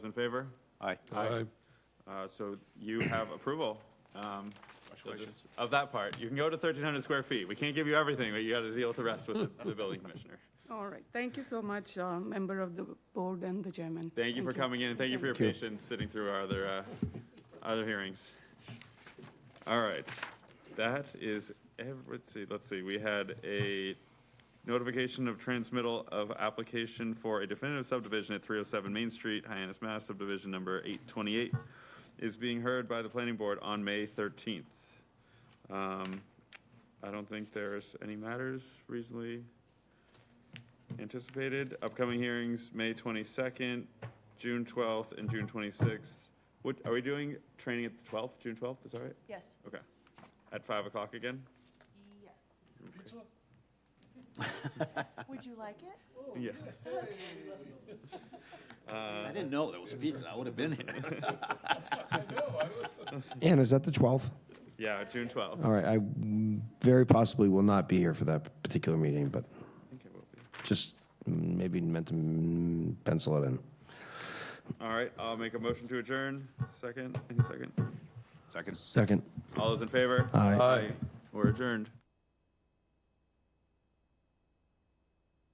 Those in favor? Aye. Aye. Uh, So you have approval um, of this- of that part. You can go to 1,300 square feet. We can't give you everything, but you got to deal with the rest with the- the building commissioner. All right, thank you so much, uh, member of the board and the chairman. Thank you for coming in, and thank you for your patience sitting through our other, uh, other hearings. All right, that is every, let's see, let's see, we had a notification of transmittal of application for a definitive subdivision at three oh seven Main Street, Hyannis, Mass, subdivision number eight twenty-eight is being heard by the planning board on May thirteenth. Um, I don't think there's any matters reasonably anticipated. Upcoming hearings, May 22nd, June 12th, and June 26th. What, are we doing training at the 12th, June 12th, is that right? Yes. Okay. At 5 o'clock again? Yes. Would you like it? Yes. I didn't know there was pizza. I would have been here. Ann, is that the 12th? Yeah, June 12th. I All right, I mm, very possibly will not be here for that particular meeting, but think it will be. just mm, maybe meant to mm, pencil it in. All right, I'll make a motion to adjourn. Second, any second? Seconds. Second. All those in favor? Aye. Aye. We're adjourned.